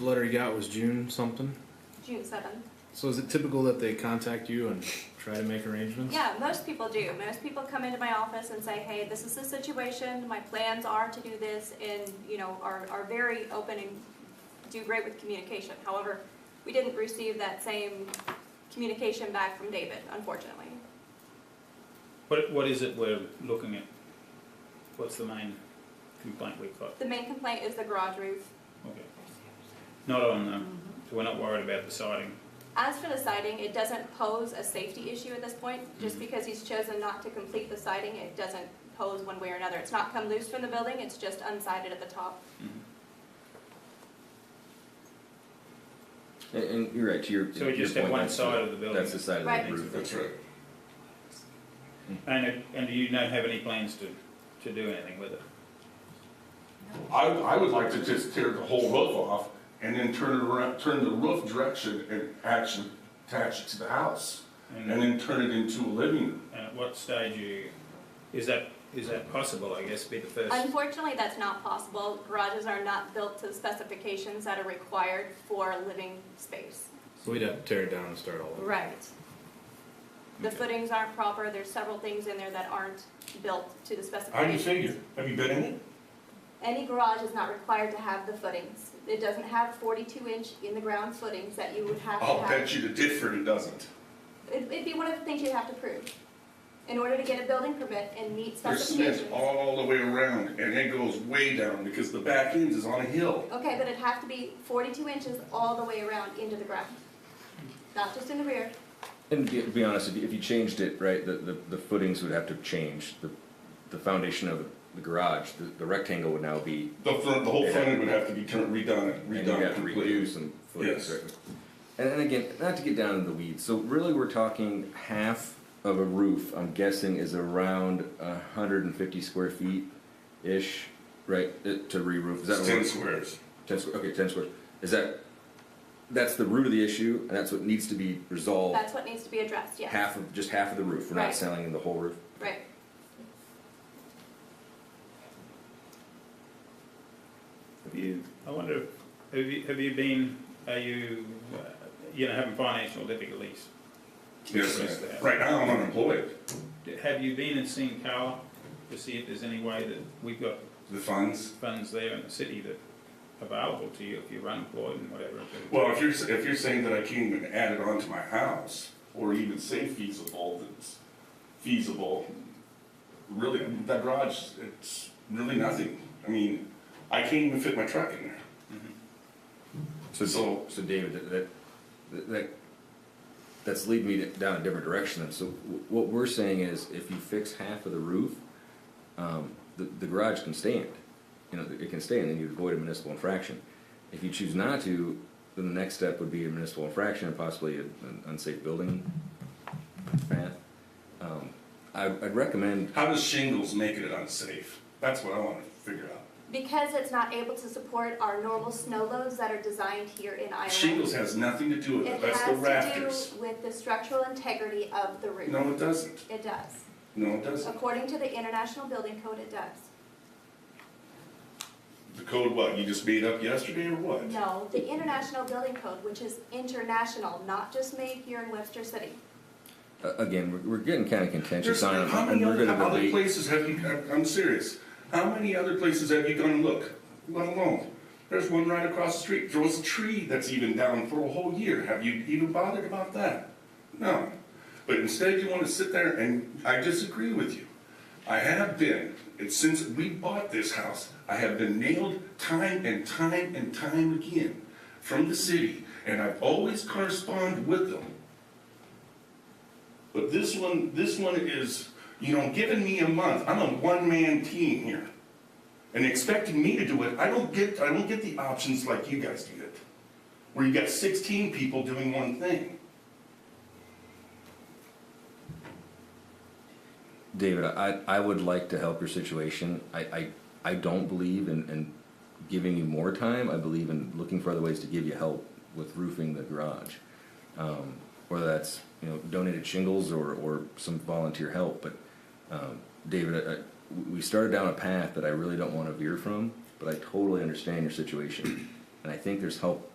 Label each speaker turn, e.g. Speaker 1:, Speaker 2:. Speaker 1: The letter you got was June something.
Speaker 2: June seventh.
Speaker 1: So is it typical that they contact you and try to make arrangements?
Speaker 2: Yeah, most people do. Most people come into my office and say, hey, this is the situation, my plans are to do this, and, you know, are, are very open and do great with communication. However, we didn't receive that same communication back from David, unfortunately.
Speaker 3: What, what is it we're looking at? What's the main complaint we've got?
Speaker 2: The main complaint is the garage roof.
Speaker 3: Okay. Not on the, so we're not worried about the siding.
Speaker 2: As for the siding, it doesn't pose a safety issue at this point, just because he's chosen not to complete the siding, it doesn't pose one way or another. It's not come loose from the building, it's just unsided at the top.
Speaker 4: Mm-hmm. And, and you're right. To your
Speaker 3: So we
Speaker 4: your
Speaker 3: just have
Speaker 4: point,
Speaker 3: one
Speaker 4: that's
Speaker 3: side of the building.
Speaker 4: That's the side of
Speaker 2: Right.
Speaker 4: the roof. That's right.
Speaker 3: And, it- and you don't have any plans to, to do anything with it?
Speaker 5: I, I would like to just tear the whole roof off and then turn it around, turn the roof direction and action, attach it to the house. And
Speaker 3: And,
Speaker 5: then turn it into a living room.
Speaker 3: and at what stage you, is that, is that possible, I guess, be the first?
Speaker 2: Unfortunately, that's not possible. Garages are not built to the specifications that are required for living space.
Speaker 1: So we'd have to tear it down and start all over.
Speaker 2: Right. The
Speaker 3: Okay.
Speaker 2: footings aren't proper, there's several things in there that aren't built to the
Speaker 5: How do you
Speaker 2: specifications.
Speaker 5: figure? Have you been in it?
Speaker 2: Any garage is not required to have the footings. It doesn't have forty-two inch in the ground footings that you would have to have.
Speaker 5: Oh, you the Ditford it doesn't.
Speaker 2: It'd, it'd be one of the things you'd have to prove. In order to get a building permit and meet
Speaker 5: There's cement
Speaker 2: specifications.
Speaker 5: all the way around and it goes way down because the back end is on a hill.
Speaker 2: Okay, but it'd have to be forty-two inches all the way around into the ground. Not just in the rear.
Speaker 4: And to be, be honest, if you, if you changed it, right, the, the, the footings would have to change. The, the foundation of the garage, the, the rectangle would now be.
Speaker 5: The front, the whole front end would have to be turned, redone,
Speaker 4: and you'd
Speaker 5: redone
Speaker 4: have to redo
Speaker 5: completely.
Speaker 4: some footings.
Speaker 5: Yes.
Speaker 4: right? And, and again, not to get down in the weeds. So really, we're talking half of a roof. I'm guessing is around 150 square feet ish, right? uh, To re-roof. Is that
Speaker 5: It's
Speaker 4: what
Speaker 5: ten
Speaker 4: we're-
Speaker 5: squares.
Speaker 4: Ten square, okay, ten square. Is that, that's the root of the issue, and that's what needs to be resolved?
Speaker 2: That's what needs to be addressed, yes.
Speaker 4: Half of, just half of the roof, we're not
Speaker 2: Right.
Speaker 4: selling the whole roof?
Speaker 2: Right.
Speaker 3: Have you, I wonder, if- have you, have you been, are you, uh, you know, having financial difficulties?
Speaker 5: Yes,
Speaker 3: Just
Speaker 5: ma'am.
Speaker 3: that.
Speaker 5: Right now I'm unemployed.
Speaker 3: Have you been and seen Carla to see if there's any way that we've got
Speaker 5: The funds.
Speaker 3: funds there in the city that are available to you if you're unemployed and whatever? to-
Speaker 5: Well, if you're, if you're saying that I can't even add it onto my house, or even say feasible, that's feasible, really, that garage, it's really nothing. I mean, I can't even fit my truck in there. So-
Speaker 4: So David, that- that, that- that, that's leading me to- down a different direction then. So wh- what we're saying is, if you fix half of the roof, um, the, the garage can stand. You know, it can stand, and you avoid a municipal infraction. If you choose not to, then the next step would be a municipal infraction and possibly a- an unsafe building path. Um, I, I'd recommend,
Speaker 5: How does shingles make it unsafe? That's what I wanna figure out.
Speaker 2: Because it's not able to support our normal snow loads that are designed here in Iowa.
Speaker 5: Shingles has nothing to do with it, that's the
Speaker 2: It has
Speaker 5: rafters.
Speaker 2: to do with the structural integrity of the roof.
Speaker 5: No, it doesn't.
Speaker 2: It does.
Speaker 5: No, it doesn't.
Speaker 2: According to the International Building Code, it does.
Speaker 5: The code what, you just made up yesterday or what?
Speaker 2: No, the International Building Code, which is international, not just made here in Webster City.
Speaker 4: a- again, we're, we're getting kind of contentious
Speaker 5: There's-
Speaker 4: on it,
Speaker 5: how
Speaker 4: and
Speaker 5: many
Speaker 4: we're
Speaker 5: other,
Speaker 4: gonna
Speaker 5: other
Speaker 4: debate.
Speaker 5: places have you? I'm- I'm serious. How many other places have you gone and look? Let alone, there's one right across the street. There was a tree that's even down for a whole year. Have you even bothered about that? No. But instead, you want to sit there and I disagree with you. I have been, and since we bought this house, I have been nailed time and time and time again from the city, and I've always corresponded with them. But this one, this one is, you know, giving me a month, I'm a one-man team here. And expecting me to do it, I don't get, I don't get the options like you guys do it. Where you got sixteen people doing one thing.
Speaker 4: David, I, I would like to help your situation. I, I, I don't believe in, in giving you more time. I believe in looking for other ways to give you help with roofing the garage. Um, whether that's, you know, donated shingles or, or some volunteer help, but, um, David, I, we started down a path that I really don't wanna veer from, but I totally understand your situation. And I think there's help